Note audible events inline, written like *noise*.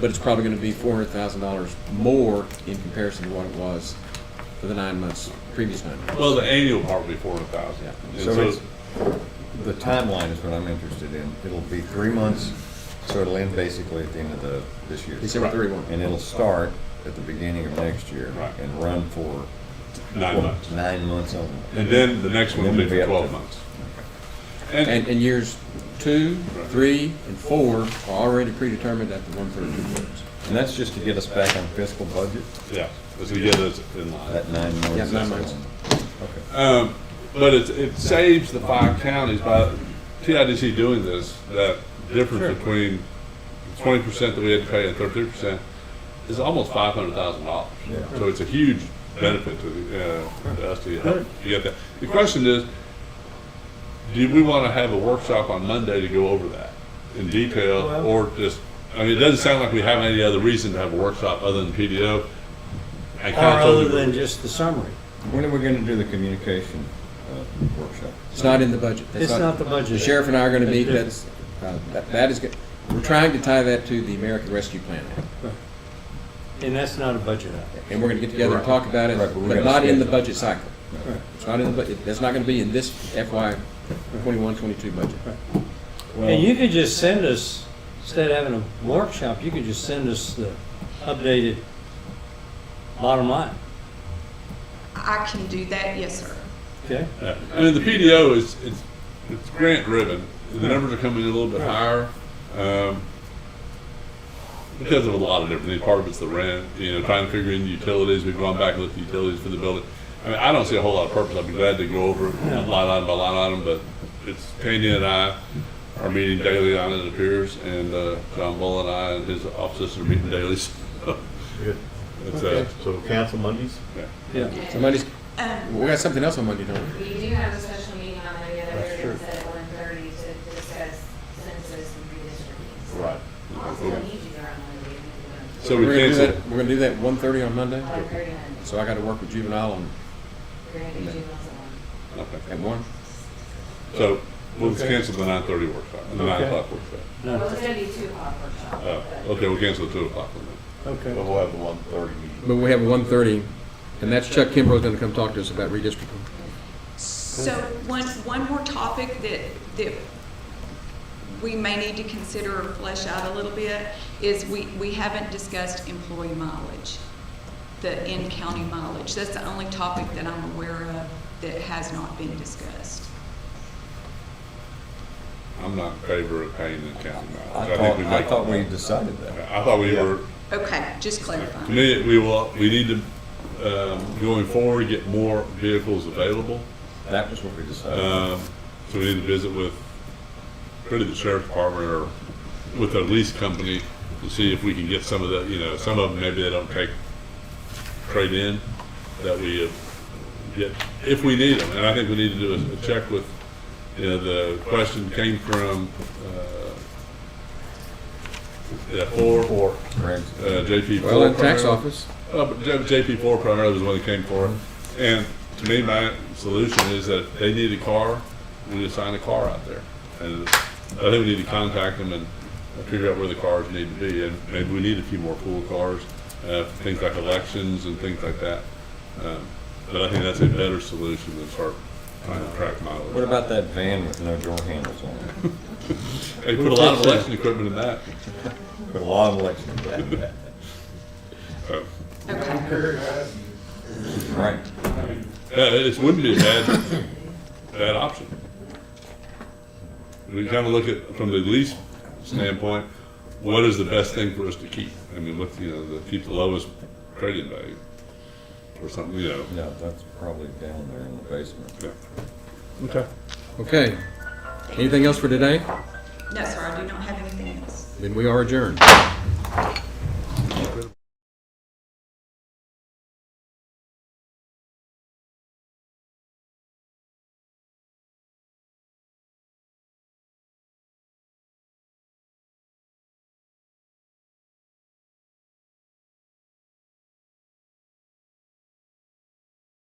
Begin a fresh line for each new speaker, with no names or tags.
but it's probably gonna be four hundred thousand dollars more in comparison to what it was for the nine months, previous nine months.
Well, the annual part would be four hundred thousand.
Yeah.
So it's- The timeline is what I'm interested in. It'll be three months, so it'll end basically at the end of the, this year.
December
Right.
thirty-one.
And it'll start at the beginning of next year.
Right.
And run for.
Nine
what,
months.
Nine months only.
And then the next one will be
Then
for
it'll be up
twelve
to-
months.
And,
And,
and years two, three, and four are already predetermined at the one thirty-two words.
And that's just to get us back on fiscal budget,
yeah, this will get us in line.
that nine months.
Yeah, nine
is
months.
on. Okay.
Um, but it, it saves the five counties by TIDC doing this, that difference between twenty percent that we had to pay and thirty percent is almost five hundred thousand dollars.
Yeah.
So it's a huge benefit to, the, uh, to us to help you get that. The question is, do we want to have a workshop on Monday to go over that in detail or just, I mean, it doesn't sound like we have any other reason to have a workshop other than PDO. I kinda
Or
told
other
you-
than just the summary.
When are we gonna do the communication uh, workshop?
It's not in the budget. That's
It's not the budget.
The sheriff and I are gonna meet,
That's
that's, uh, that that is, go- we're trying to tie that to the American Rescue Plan Act.
And that's not a budget item.
And we're gonna get together and talk about it,
Right, but we
but
gotta
not in the
schedule.
budget cycle.
Right.
It's not in the budget, that's not gonna be in this FY twenty-one, twenty-two budget.
And you could just send us, instead of having a workshop, you could just send us the updated bottom line,
I can do that, yes, sir.
okay?
Yeah. I mean, the PDO is, it's, it's grant driven. The numbers are coming in a little bit higher, um, because of a lot of different things. Part of it's the rent, you know, trying to figure in the utilities. We've gone back and looked at utilities for the building. I mean, I don't see a whole lot of purpose. I'd be glad to go over it line item by line item, but it's Tanya and I are meeting daily on it, it appears, and, uh, John Bull and I and his offices are meeting daily. *laughs* so
Good.
It's, uh,
So council Mondays?
Yeah.
So Monday's,
Um,
we got something else on Monday, don't we?
We do have a special meeting on Monday that we're going to set at one thirty to discuss census and redistricting.
Right.
Also, you do our Monday.
So we
We're gonna do
cancel.
that- We're gonna do that one thirty on Monday,
One thirty,
so I gotta work with juvenile on,
we're going to do juveniles at one.
okay.
at one.
So we'll just cancel the nine thirty workshop, the nine o'clock workshop.
Well,
No,
it's going to be two o'clock workshop.
Oh,
but-
okay, we'll cancel the two o'clock one then.
okay.
But we'll have the one thirty meeting.
But we have one thirty, and that's Chuck Kimbrough's gonna come talk to us about redistricting.
So one, one more topic that, that we may need to consider or flesh out a little bit is we, we haven't discussed employee mileage, the in-county mileage. That's the only topic that I'm aware of that has not been discussed.
I'm not in favor of paying the county mileage.
I
I think
thought,
we
I
make,
thought we decided that.
I thought we were,
Okay, just
to
clarifying.
me, we will, we need to, um, going forward, get more vehicles available.
That was what we
Uh,
decided.
Um, so we need to visit with, pretty the sheriff's department or with a lease company to see if we can get some of the, you know, some of them, maybe they don't take trade in that we uh, get, if we need them. And I think we need to do a- a check with, you know, the question came from, uh, that four, uh,
Greg's-
JP.
Well, in
Ford
tax
primarily.
office,
Uh, but J- JP four primarily was the one that came for it.
Mm-hmm.
And to me, my solution is that if they need a car, we just sign a car out there. And I think we need to contact them and figure out where the cars need to be. And maybe we need a few more pool cars, uh, for things like elections and things like that. Um, But I think that's a better solution than start trying to track
What
mileage.
about that van with no door handles on it?
They put a lot of election equipment in that.
Put a lot of election in that.
so.
Okay.
Right.
Yeah, it wouldn't be a bad, bad option. We kind of look at, from the lease standpoint, what is the best thing for us to keep? I mean, what, you know, the, keep the lowest trading value or something, you know.
No, that's probably down there in the basement.
yeah. Okay.
okay. Anything else for today?
No, sir, I do not have anything else.
Then we are adjourned.